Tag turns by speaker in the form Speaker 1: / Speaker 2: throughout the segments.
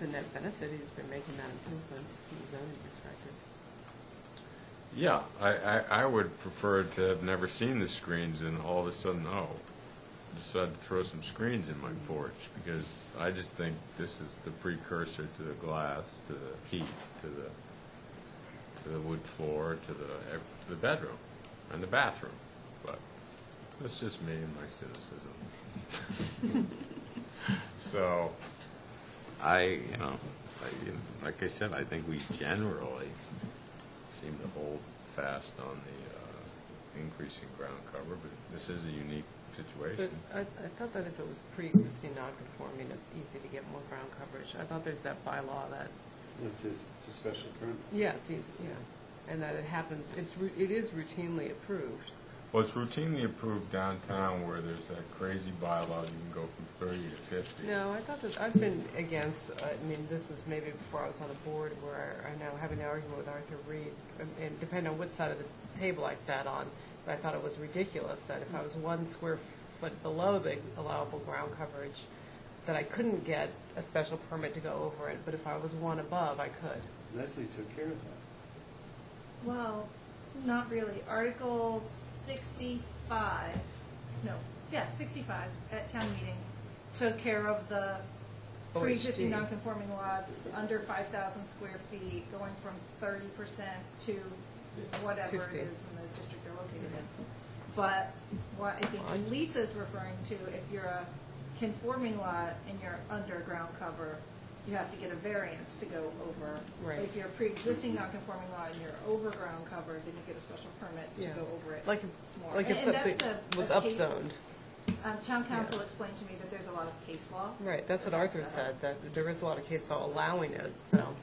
Speaker 1: a net benefit, he's been making that improvement, from a zoning perspective.
Speaker 2: Yeah, I, I, I would prefer to have never seen the screens and all of a sudden, oh, decided to throw some screens in my porch, because I just think this is the precursor to the glass, to the heat, to the, to the wood floor, to the, ev- to the bedroom, and the bathroom. But that's just me and my cynicism. So, I, you know, I- like I said, I think we generally seem to hold fast on the uh, increase in ground cover, but this is a unique
Speaker 1: But
Speaker 2: situation.
Speaker 1: I, I thought that if it was pre-existing non-conforming, it's easy to get more ground coverage. I thought there's that bylaw that,
Speaker 3: It's a, it's a special permit.
Speaker 1: yeah, it's easy, yeah, and that it happens, it's, ru- it is routinely approved.
Speaker 2: Well, it's routinely approved downtown where there's that crazy bylaw, you can go from 30 to 50.
Speaker 1: No, I thought that, I've been against, uh, I mean, this is maybe before I was on the board where I now have an argument with Arthur Reed, and- and depending on which side of the table I sat on, but I thought it was ridiculous that if I was one square foot below the allowable ground coverage, that I couldn't get a special permit to go over it, but if I was one above, I could.
Speaker 3: Leslie took care of that.
Speaker 4: Well, not really. Article sixty-five, no, yeah, sixty-five at town meeting took care of the
Speaker 1: OHD.
Speaker 4: pre-existing non-conforming lots under five thousand square feet, going from thirty percent to whatever it
Speaker 1: 50.
Speaker 4: is in the district they're located in. But what I think Lisa's referring to, if you're a conforming lot and you're underground cover, you have to get a variance to go over.
Speaker 1: Right.
Speaker 4: If you're a pre-existing non-conforming lot and you're overground covered, then you get a special permit to
Speaker 1: Yeah.
Speaker 4: go over it.
Speaker 1: Like, if-
Speaker 4: more.
Speaker 1: like if
Speaker 4: And- and
Speaker 1: something
Speaker 4: that's a-
Speaker 1: was
Speaker 4: a case-
Speaker 1: upzoned.
Speaker 4: Um, town council
Speaker 1: Yeah.
Speaker 4: explained to me that there's a lot of case law.
Speaker 1: Right, that's what
Speaker 4: that
Speaker 1: Arthur
Speaker 4: backs that up.
Speaker 1: said, that there is a lot of case law allowing it, so.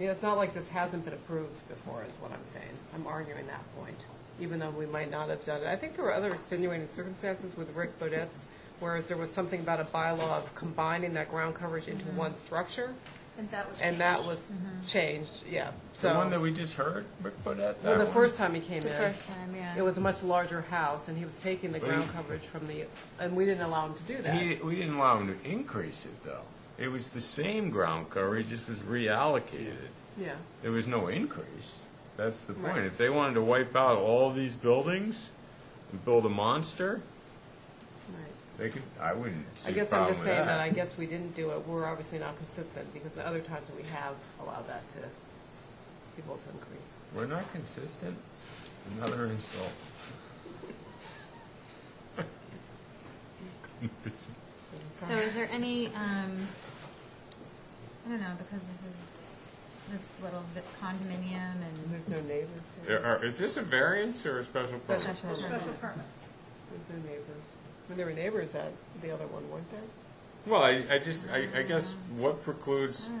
Speaker 1: You know, it's not like this hasn't been approved before, is what I'm saying. I'm arguing that point, even though we might not have done it. I think there were other extenuating circumstances with Rick Bodette's, whereas there was something about a bylaw of combining that ground coverage into
Speaker 5: Mm-hmm.
Speaker 1: one structure,
Speaker 4: And that was
Speaker 1: and that
Speaker 4: changed.
Speaker 1: was changed, yeah, so.
Speaker 2: The one that we just heard, Rick Bodette, that
Speaker 1: Well,
Speaker 2: one.
Speaker 1: the first time he came in.
Speaker 5: The first time, yeah.
Speaker 1: It was a much larger house, and he was taking the
Speaker 2: But
Speaker 1: ground
Speaker 2: he-
Speaker 1: coverage from the, and we didn't allow him to do that.
Speaker 2: He, we didn't allow him to increase it, though. It was the same ground cover, it just was reallocated.
Speaker 1: Yeah,
Speaker 2: There was no increase. That's the point.
Speaker 1: Right.
Speaker 2: If they wanted to wipe out all these buildings and build a monster,
Speaker 1: right.
Speaker 2: they could, I wouldn't
Speaker 1: I
Speaker 2: see a
Speaker 1: guess I'm
Speaker 2: problem
Speaker 1: just
Speaker 2: with
Speaker 1: saying that I guess we didn't do it, we're obviously not consistent, because the other times we have allowed that to, people to increase.
Speaker 2: We're not consistent. Another insult.
Speaker 5: So is there any, um, I don't know, because this is this little bit condominium
Speaker 1: And
Speaker 5: and
Speaker 1: There's no neighbors
Speaker 2: There
Speaker 1: here,
Speaker 2: are- Is this a variance or a special permit?
Speaker 5: Special
Speaker 4: A Special
Speaker 5: permit.
Speaker 4: permit.
Speaker 1: there's no neighbors. When there were neighbors at the other one, weren't there?
Speaker 2: Well, I, I just, I, I guess what precludes
Speaker 5: Oh, I don't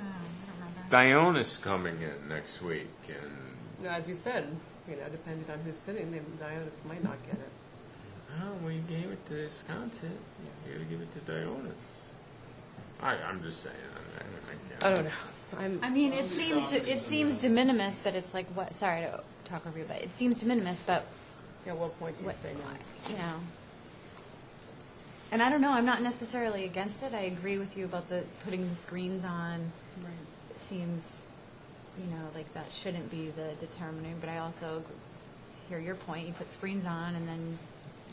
Speaker 5: know, I don't remember.
Speaker 2: Dionis coming in next week and
Speaker 1: Now, as you said, you know, depending on who's sitting, the Dionis might not get it.
Speaker 2: Oh, we gave it to Wisconsin. You gotta give it to Dionis. I, I'm just saying. I,
Speaker 1: I
Speaker 2: I, I
Speaker 1: don't know, I'm,
Speaker 5: I mean, it seems to, it seems de minimis, but it's like, what, sorry to talk over you, but it seems de minimis, but
Speaker 1: at what point do you
Speaker 5: what,
Speaker 1: say no?
Speaker 5: you know. And I don't know, I'm not necessarily against it, I agree with you about the, putting the screens on. It seems, you know, like that shouldn't be the determinant, but I also ag- hear your point. You put screens on and then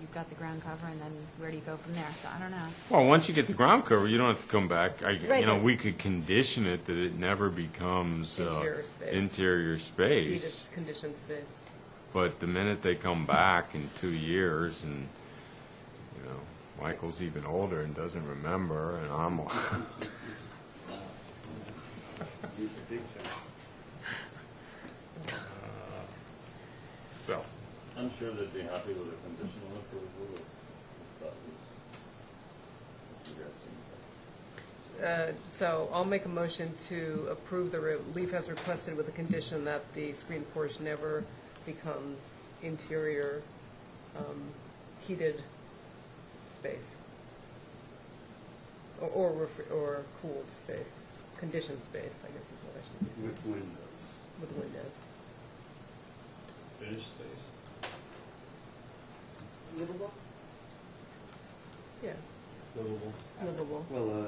Speaker 5: you've got the ground cover and then where do you go from there? So I don't know.
Speaker 2: Well, once you get the ground cover, you don't have to come back. I,
Speaker 5: Right,
Speaker 2: you know,
Speaker 5: but-
Speaker 2: we could condition it that it never becomes uh,
Speaker 1: Interior space.
Speaker 2: interior space.
Speaker 1: He just conditions space.
Speaker 2: But the minute they come back in two years, and you know, Michael's even older and doesn't remember, and I'm
Speaker 3: He's a big time.
Speaker 2: well.
Speaker 6: I'm sure they'd be happy with a conditional approval if that was, if you
Speaker 1: Uh,
Speaker 6: guys think
Speaker 1: So I'll make a motion to approve the relief as requested with the condition that the screen porch never becomes interior um, heated space. Or- Or, ref- or cooled space, conditioned space, I guess is what I should say,
Speaker 3: With windows.
Speaker 1: with windows.
Speaker 6: finished space.
Speaker 3: Livable?
Speaker 1: Yeah,
Speaker 3: Livable.
Speaker 1: livable.
Speaker 3: Well, uh,